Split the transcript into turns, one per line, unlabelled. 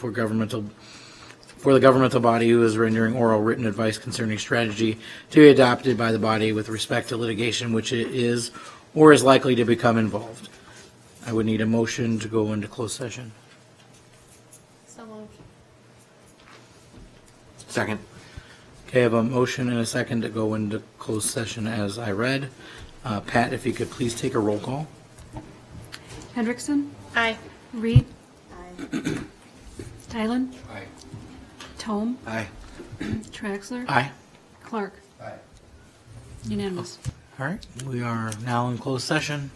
for governmental, for the governmental body who is rendering oral written advice concerning strategy to be adopted by the body with respect to litigation which it is or is likely to become involved. I would need a motion to go into closed session.
So moved.
Second.
Okay, I have a motion and a second to go into closed session as I read. Uh, Pat, if you could please take a roll call.
Hendrickson,
Aye.
Reed. Stylen. Tome,
Aye.
Traxler.
Aye.
Clark. Unanimous.
All right, we are now in closed session.